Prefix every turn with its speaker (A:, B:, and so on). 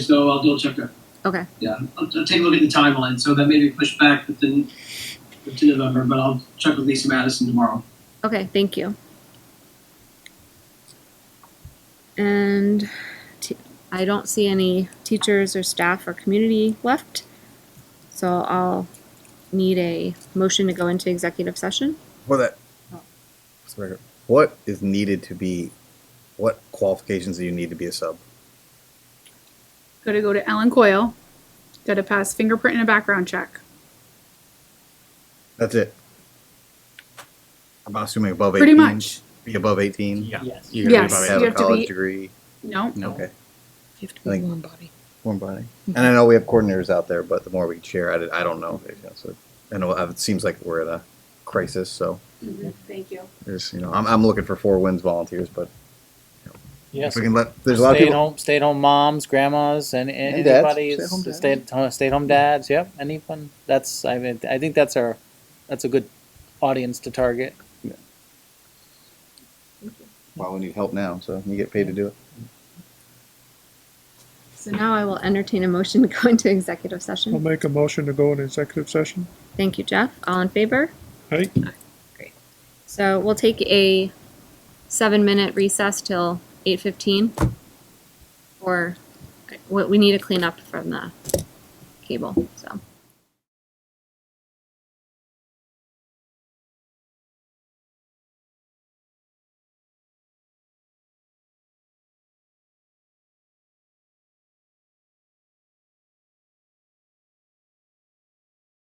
A: so I'll double check that.
B: Okay.
A: Yeah, I'll, I'll take a look at the timeline. So that may be pushed back within, to November, but I'll check with Lisa Madison tomorrow.
B: Okay, thank you. And t- I don't see any teachers or staff or community left. So I'll need a motion to go into executive session.
C: What that?
D: Oh.
C: Sorry. What is needed to be? What qualifications do you need to be a sub?
D: Got to go to Ellen Coyle. Got to pass fingerprint and a background check.
C: That's it. I'm assuming above
D: Pretty
C: 18,
D: much.
C: Be above eighteen.
E: Yeah.
A: Yes.
E: You gotta be
D: Yes.
E: about
C: Have
D: You
C: a
D: have to
C: college
D: be-
C: degree.
D: No.
E: No.
C: Okay.
F: You have to
C: I
F: be
C: think-
F: warm body.
C: Warm body.
D: Mm-hmm.
C: And I know we have coordinators out there, but the more we can share, I, did- I don't know. If, you know, so, I know uh, it seems like we're in a crisis, so
D: Thank you.
C: there's you know I'm, I'm looking for four wins volunteers, but
G: Yes.
C: if we can let there's a lot of
G: stay
C: people.
G: at home, stay at home moms, grandmas, and, and,
C: And dads.
G: anybody
C: Stay-at-home dads.
G: stay at home, stay at home uh, dads. Yep, anyone. That's I mean, I think that's our that's a good audience to target.
C: Well, we need help now, so you get paid to do it.
B: So now I will entertain a motion to go into executive
H: I'll
B: session.
H: make a motion to go in executive session.
B: Thank you, Jeff. All in favor?
H: Aye.
B: So we'll take a seven minute recess till eight fifteen. Or, we, we need to clean up from the cable, so.